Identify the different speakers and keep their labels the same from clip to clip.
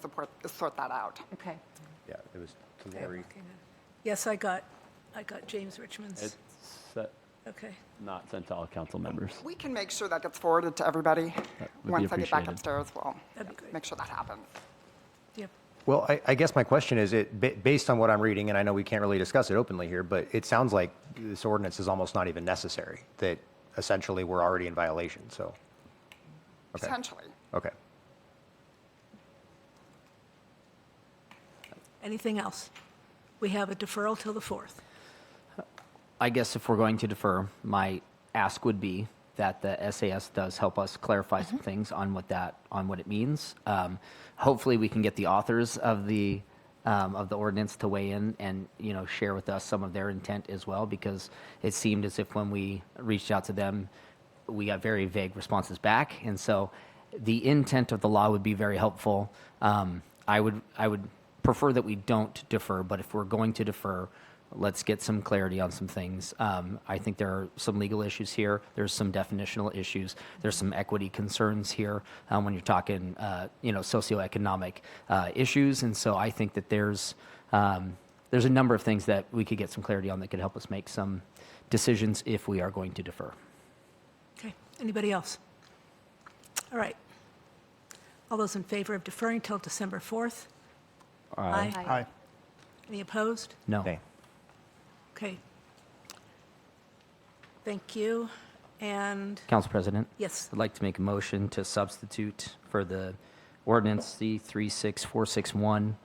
Speaker 1: support, sort that out.
Speaker 2: Okay.
Speaker 3: Yeah, it was to Lori.
Speaker 4: Yes, I got, I got James Richmond's.
Speaker 5: It's uh,
Speaker 4: Okay.
Speaker 5: not sent to all council members.
Speaker 1: We can make sure that gets forwarded to everybody.
Speaker 5: would be
Speaker 1: Once I get back
Speaker 5: appreciated.
Speaker 1: upstairs, we'll
Speaker 4: That'd be great.
Speaker 1: make sure that happens.
Speaker 4: Yep.
Speaker 3: Well, I, I guess my question is, it, ba- based on what I'm reading, and I know we can't really discuss it openly here, but it sounds like this ordinance is almost not even necessary, that essentially we're already in violation, so. Okay,
Speaker 1: Potentially.
Speaker 3: okay.
Speaker 4: Anything else? We have a deferral till the 4th.
Speaker 6: I guess if we're going to defer, my ask would be that the SAS does help us clarify some things on what that on what it means. Um, hopefully, we can get the authors of the um, of the ordinance to weigh in and you know share with us some of their intent as well, because it seemed as if when we reached out to them, we got very vague responses back, and so the intent of the law would be very helpful. Um, I would I would prefer that we don't defer, but if we're going to defer, let's get some clarity on some things. Um, I think there are some legal issues here. There's some definitional issues. There's some equity concerns here um, when you're talking, uh, you know, socioeconomic uh, issues. And so I think that there's um, there's a number of things that we could get some clarity on that could help us make some decisions if we are going to defer.
Speaker 4: Okay. Anybody else? All right. All those in favor of deferring till December 4th? Aye.
Speaker 2: Aye.
Speaker 4: Any opposed?
Speaker 6: No.
Speaker 3: Okay.
Speaker 4: Okay. Thank you. And,
Speaker 6: Council President.
Speaker 4: yes,
Speaker 6: I'd like to make a motion to substitute for the ordinance C 36461,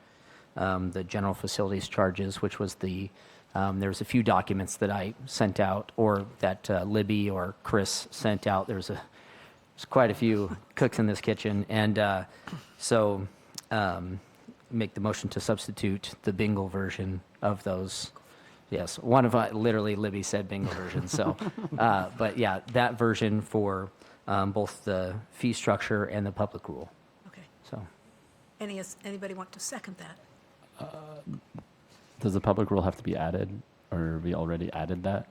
Speaker 6: um, the general facilities charges, which was the, um, there was a few documents that I sent out, or that uh, Libby or Chris sent out. There's a, there's quite a few cooks in this kitchen. And uh, so um, make the motion to substitute the bingo version of those. Yes, one of, uh, literally Libby said bingo version, so. uh, But yeah, that version for um, both the fee structure and the public rule,
Speaker 4: okay.
Speaker 6: so.
Speaker 4: Any, anybody want to second that?
Speaker 5: Does the public rule have to be added, or we already added that?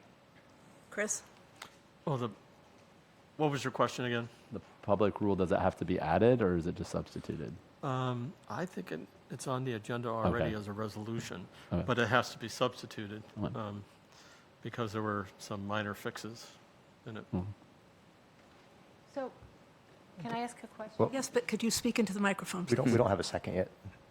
Speaker 4: Chris?
Speaker 7: Well, Oh, the, what was your question again?
Speaker 5: The public rule, does it have to be added, or is it just substituted?
Speaker 7: Um, I think it, it's on the agenda already
Speaker 5: Okay.
Speaker 7: as a resolution,
Speaker 5: Okay.
Speaker 7: but it has to be substituted,
Speaker 5: Okay.
Speaker 7: um, because there were some minor fixes in it.
Speaker 2: So, can I ask a question?
Speaker 3: Well-
Speaker 4: Yes, but could you speak into the microphone?
Speaker 3: We don't, we don't have a second yet.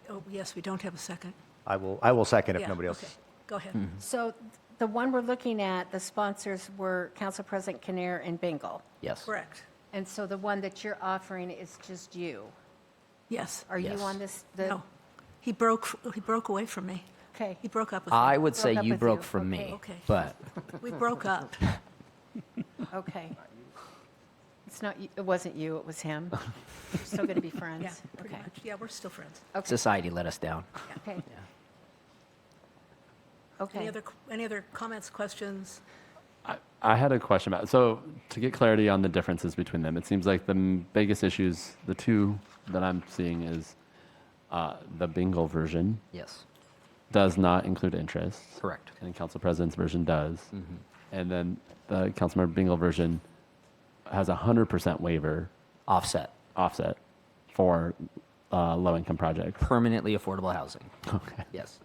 Speaker 4: Oh, yes, we don't have a second.
Speaker 3: I will, I will second if
Speaker 4: Yeah,
Speaker 3: nobody else.
Speaker 4: okay. Go ahead.
Speaker 2: So the one we're looking at, the sponsors were Council President Kinnear and Bingle.
Speaker 6: Yes.
Speaker 4: Correct.
Speaker 2: And so the one that you're offering is just you.
Speaker 4: Yes.
Speaker 2: Are you
Speaker 6: Yes.
Speaker 2: on this? the-
Speaker 4: No. He broke, he broke away from me.
Speaker 2: Okay.
Speaker 4: He broke up with me.
Speaker 6: I would say
Speaker 2: Broke up
Speaker 6: you
Speaker 2: with
Speaker 6: broke
Speaker 2: you.
Speaker 6: from
Speaker 2: Okay.
Speaker 6: me,
Speaker 4: Okay.
Speaker 6: but
Speaker 4: We broke up.
Speaker 2: Okay. It's not, you- it wasn't you, it was him. You're Still going to be
Speaker 4: Yeah,
Speaker 2: friends?
Speaker 4: pretty
Speaker 2: Okay.
Speaker 4: much. Yeah, we're still friends.
Speaker 2: Okay.
Speaker 6: society let us down.
Speaker 2: Okay.
Speaker 4: Any
Speaker 2: Okay.
Speaker 4: other, any other comments, questions?
Speaker 5: I, I had a question about so to get clarity on the differences between them. It seems like the m- biggest issues, the two that I'm seeing, is uh, the bingo version
Speaker 6: Yes,
Speaker 5: does not include interest,
Speaker 6: correct.
Speaker 5: and council president's version does, and then the councilmember bingo version has a hundred percent waiver
Speaker 6: Offset,
Speaker 5: offset for uh, low-income projects.
Speaker 6: permanently affordable housing.
Speaker 5: Okay,
Speaker 6: Yes,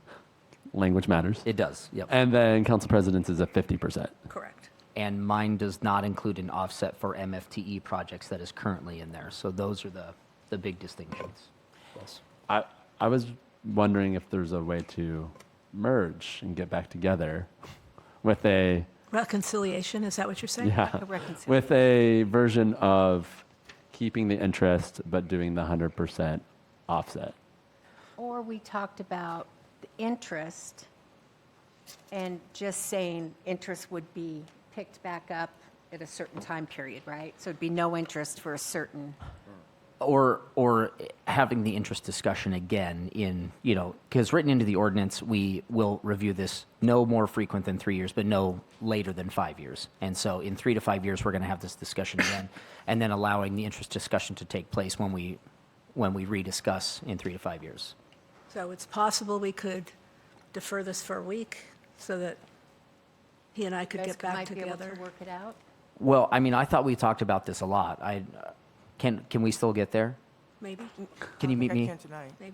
Speaker 5: language matters.
Speaker 6: it does, yep.
Speaker 5: and then council president's is a fifty percent.
Speaker 4: Correct.
Speaker 6: And mine does not include an offset for MFTE E projects that is currently in there. So those are the, the big distinctions. Yes.
Speaker 5: I I was wondering if there's a way to merge and get back together with a
Speaker 4: Reconciliation, is that what you're saying?
Speaker 5: yeah,
Speaker 2: A reconciliation.
Speaker 5: with a version of keeping the interest but doing the 100% offset.
Speaker 2: Or we talked about the interest and just saying interest would be picked back up at a certain time period, right? So it'd be no interest for a certain,
Speaker 6: or or having the interest discussion again in you know because written into the ordinance we will review this no more frequent than three years but no later than five years and so in three to five years we're going to have this discussion again and then allowing the interest discussion to take place when we when we rediscuss in three to five years
Speaker 4: So it's possible we could defer this for a week so that he and I could
Speaker 2: you guys
Speaker 4: get back
Speaker 2: might be able
Speaker 4: together.
Speaker 2: to work it out?
Speaker 6: well i mean i thought we talked about this a lot i can can we still get there
Speaker 4: Maybe?
Speaker 6: can you meet me
Speaker 8: I can tonight.